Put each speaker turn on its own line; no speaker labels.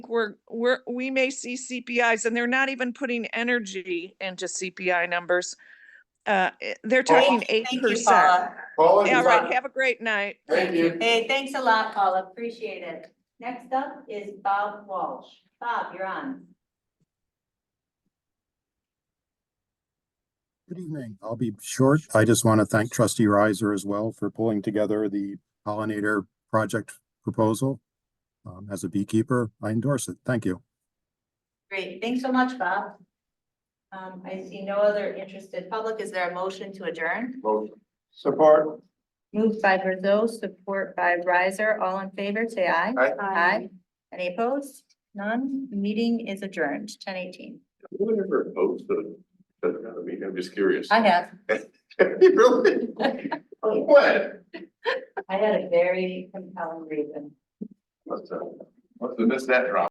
we're, we're, we may see CPIs and they're not even putting energy into CPI numbers. Uh, eh, they're talking eight
Thank you,
percent.
Paula.
Paula,
All
you're
right,
right.
have a great night.
Thank you.
Hey, thanks a lot, Paula. Appreciate it. Next up is Bob Walsh. Bob, you're on.
Good evening. I'll be short. I just want to thank trustee Riser as well for pulling together the pollinator project proposal. Um, as a beekeeper, I endorse it. Thank you.
Great. Thanks so much, Bob. Um, I see no other interested public. Is there a motion to adjourn?
Motion. Support.
Moved by Brazil, support by Riser. All in favor, say aye.
Aye.
Aye. Any opposed? None. Meeting is adjourned, ten eighteen.
Who would ever oppose the, doesn't matter to me, I'm just curious.
I have.
Really? What?
I had a very compelling reason.
Must have, must have missed that drop.